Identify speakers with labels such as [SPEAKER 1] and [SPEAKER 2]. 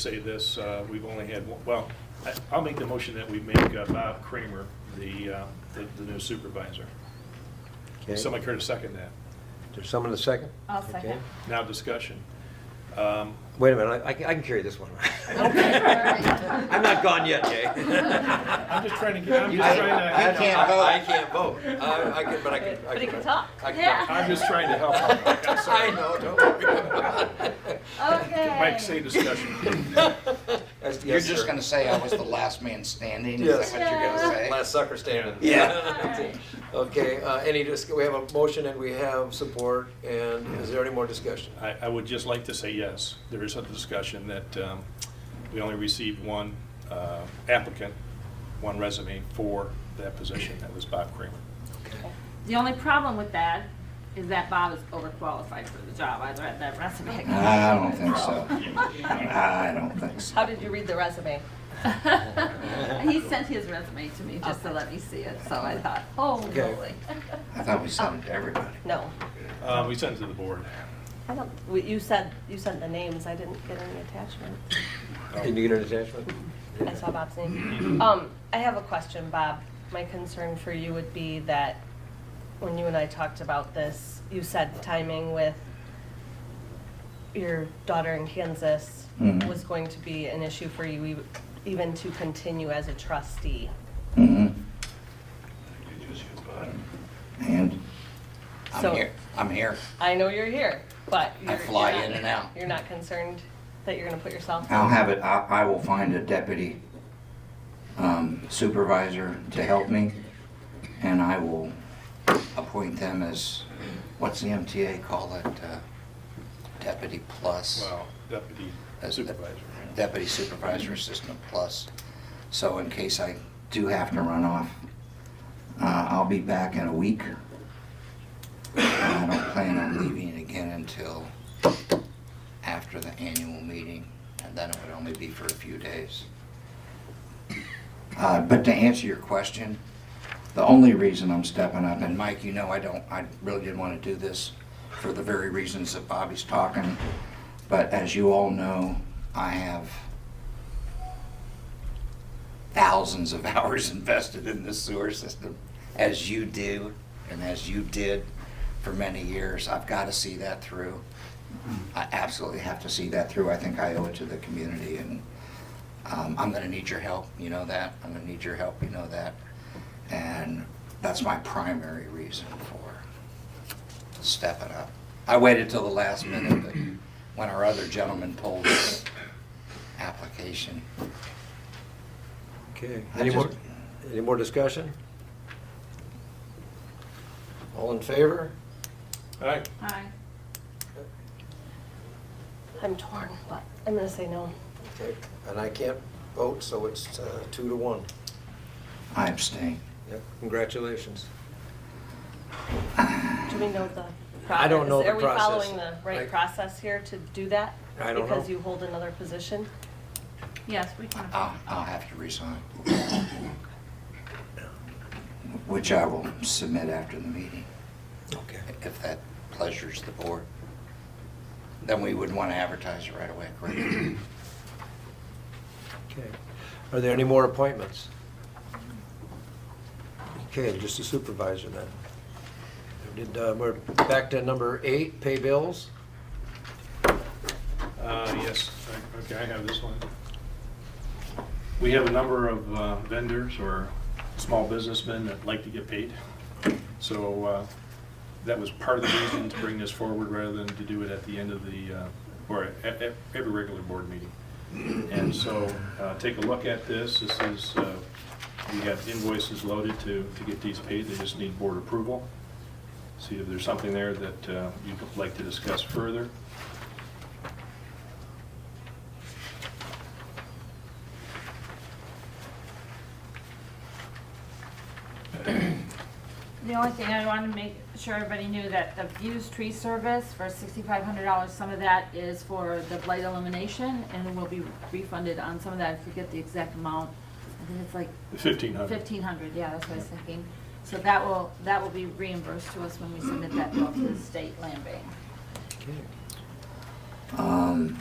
[SPEAKER 1] say this, uh, we've only had, one- well, I- I'll make the motion that we make uh, Bob Kramer the, uh, the the new supervisor.
[SPEAKER 2] Okay.
[SPEAKER 1] Somebody care to second that?
[SPEAKER 2] There's someone to second?
[SPEAKER 3] I'll second.
[SPEAKER 2] Okay.
[SPEAKER 1] Now discussion. Um,
[SPEAKER 2] Wait a minute, I, I can- I can carry this one.
[SPEAKER 3] Okay, all right.
[SPEAKER 2] I'm not gone yet, Jay.
[SPEAKER 1] I'm just trying to get, I'm
[SPEAKER 2] You
[SPEAKER 1] just
[SPEAKER 2] can't-
[SPEAKER 1] trying
[SPEAKER 2] I
[SPEAKER 1] to,
[SPEAKER 2] can't vote. I can't vote. I, I can, but I can. I
[SPEAKER 3] But he can talk.
[SPEAKER 2] I can
[SPEAKER 3] Yeah.
[SPEAKER 2] talk.
[SPEAKER 1] I'm just trying to help. out. I'm
[SPEAKER 2] I
[SPEAKER 1] sorry.
[SPEAKER 2] know, don't worry.
[SPEAKER 3] Okay.
[SPEAKER 1] Mike, say discussion.
[SPEAKER 2] That's-
[SPEAKER 4] You're
[SPEAKER 2] yes,
[SPEAKER 4] just
[SPEAKER 2] sir.
[SPEAKER 4] gonna say I was the last man standing,
[SPEAKER 2] Yes.
[SPEAKER 4] is that what you're gonna say?
[SPEAKER 2] Last sucker standing.
[SPEAKER 3] Alright.
[SPEAKER 2] Okay, uh, any, dis- we have a motion and we have support, and is there any more discussion?
[SPEAKER 1] I, I would just like to say yes. There is a discussion that um, we only received one uh, applicant, one resume for that position. That was Bob Kramer.
[SPEAKER 3] The only problem with that is that Bob is overqualified for the job. I read that resume.
[SPEAKER 4] I don't think so. I don't think so.
[SPEAKER 5] How did you read the resume?
[SPEAKER 3] He sent his resume to me just to let me see it, so I thought, oh,
[SPEAKER 2] Okay.
[SPEAKER 3] really?
[SPEAKER 4] I thought we sent it to everybody.
[SPEAKER 5] No,
[SPEAKER 1] Uh, We sent it to the board.
[SPEAKER 5] I don't, well, you said, you sent the names, I didn't get any attachment.
[SPEAKER 2] Can you get an attachment?
[SPEAKER 5] I saw Bob's name. Um, I have a question, Bob. My concern for you would be that when you and I talked about this, you said timing with your daughter in Kansas
[SPEAKER 4] Mhm.
[SPEAKER 5] was going to be an issue for you e- even to continue as a trustee.
[SPEAKER 4] Mhm. And I'm
[SPEAKER 5] So-
[SPEAKER 4] here, I'm here.
[SPEAKER 5] I know you're here, but
[SPEAKER 4] I
[SPEAKER 5] you're.
[SPEAKER 4] fly
[SPEAKER 5] you're
[SPEAKER 4] in
[SPEAKER 5] not-
[SPEAKER 4] and out.
[SPEAKER 5] You're not concerned that you're gonna put yourself?
[SPEAKER 4] I'll have it, I, I will find a deputy um, supervisor to help me, and I will appoint them as, what's the MTA call it? uh, Deputy plus?
[SPEAKER 1] Well, deputy
[SPEAKER 2] Uh,
[SPEAKER 4] as the
[SPEAKER 1] supervisor.
[SPEAKER 4] Deputy Supervisor Assistant Plus. So in case I do have to run off, uh, I'll be back in a week. And I don't plan on leaving again until after the annual meeting, and then it would only be for a few days. Uh, But to answer your question, the only reason I'm stepping up, and Mike, you know I don't, I really didn't want to do this for the very reasons that Bobby's talking, but as you all know, I have thousands of hours invested in this sewer system, as you do, and as you did for many years. I've got to see that through. I absolutely have to see that through. I think I owe it to the community, and um, I'm going to need your help, you know that. I'm going to need your help, you know that. And that's my primary reason for stepping up. I waited till the last minute, but when our other gentleman pulled his application.
[SPEAKER 2] Okay,
[SPEAKER 4] I
[SPEAKER 2] any
[SPEAKER 4] just-
[SPEAKER 2] more, any more discussion? All in favor?
[SPEAKER 1] All right,
[SPEAKER 3] Hi.
[SPEAKER 5] I'm torn, but I'm gonna say no.
[SPEAKER 2] Okay, and I can't vote, so it's uh, two to one.
[SPEAKER 4] I abstain.
[SPEAKER 2] Yep, congratulations.
[SPEAKER 5] Do we know the process?
[SPEAKER 2] I don't know the
[SPEAKER 5] Are we
[SPEAKER 2] process.
[SPEAKER 5] following the
[SPEAKER 2] Like-
[SPEAKER 5] right process here to do that?
[SPEAKER 2] I don't know.
[SPEAKER 5] Because you hold another position?
[SPEAKER 3] Yes, we can.
[SPEAKER 4] I'll, I'll have to resign. Which I will submit after the meeting,
[SPEAKER 2] Okay.
[SPEAKER 4] if that pleasures the board. Then we would want to advertise it right away, correct?
[SPEAKER 2] Okay. Are there any more appointments? Okay, just a supervisor then. We Did, uh, we're back to number eight, pay bills.
[SPEAKER 1] Uh, yes, okay, I have this one. We have a number of uh, vendors or small businessmen that like to get paid. So uh, that was part of the reason to bring this forward rather than to do it at the end of the, uh, or at at every regular board meeting. And so uh, take a look at this. This is, uh, we have invoices loaded to, to get these paid. They just need board approval. See if there's something there that uh, you'd like to discuss further.
[SPEAKER 3] The only thing I wanted to make sure everybody knew that the Views Tree Service for sixty-five hundred dollars, some of that is for the blight elimination and will be refunded on some of that. I forget the exact amount. I think it's like
[SPEAKER 1] 1,500.
[SPEAKER 3] fifteen hundred, yeah, that's what I was thinking. So that will, that will be reimbursed to us when we submit that bill to the state land bank.
[SPEAKER 2] Okay.
[SPEAKER 4] Um,